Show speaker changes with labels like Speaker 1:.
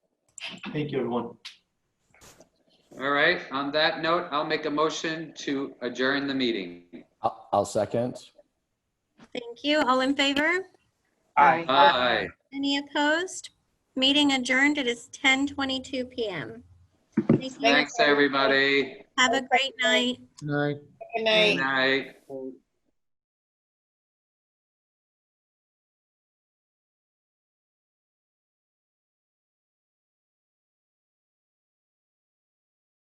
Speaker 1: Thank you, everyone.
Speaker 2: All right, on that note, I'll make a motion to adjourn the meeting.
Speaker 3: I'll, I'll second.
Speaker 4: Thank you. All in favor?
Speaker 5: Aye.
Speaker 2: Aye.
Speaker 4: Any opposed? Meeting adjourned. It is 10:22 PM. Thank you.
Speaker 2: Thanks, everybody.
Speaker 4: Have a great night.
Speaker 2: Good night.